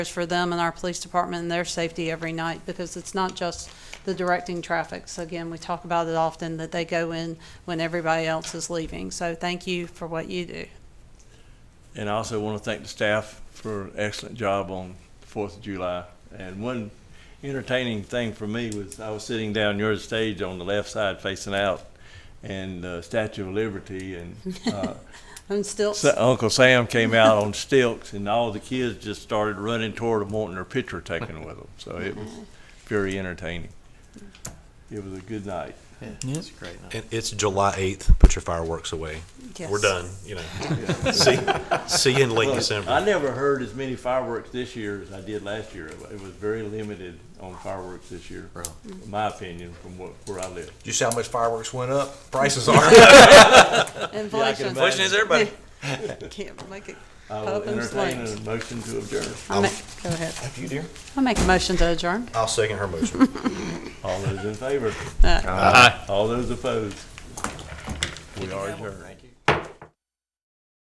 for them and our police department and their safety every night because it's not just the directing traffic. So again, we talk about it often that they go in when everybody else is leaving. So thank you for what you do. And I also want to thank the staff for an excellent job on the Fourth of July. And one entertaining thing for me was I was sitting down your stage on the left side facing out and uh, Statue of Liberty and uh, And still, Sa- Uncle Sam came out on stilts and all the kids just started running toward him wanting their picture taken with them. So it was very entertaining. It was a good night. Yeah, it's a great night. And it's July 8th. Put your fireworks away. yes. We're done. You know, see, see you in late Well, I December. never heard as many fireworks this year as I did last year. It was very limited on fireworks this year, Really? in my opinion, from what, where I live. You see how much fireworks went up? Prices are. Inflation. imagine. Question is everybody. Can't make it. I will Up in entertain flames. a motion to adjourn. I ma- Go ahead. Have you, dear? I'll make a motion to adjourn. I'll second her motion. All those in favor? Uh, All those opposed? We are adjourned. Thank you.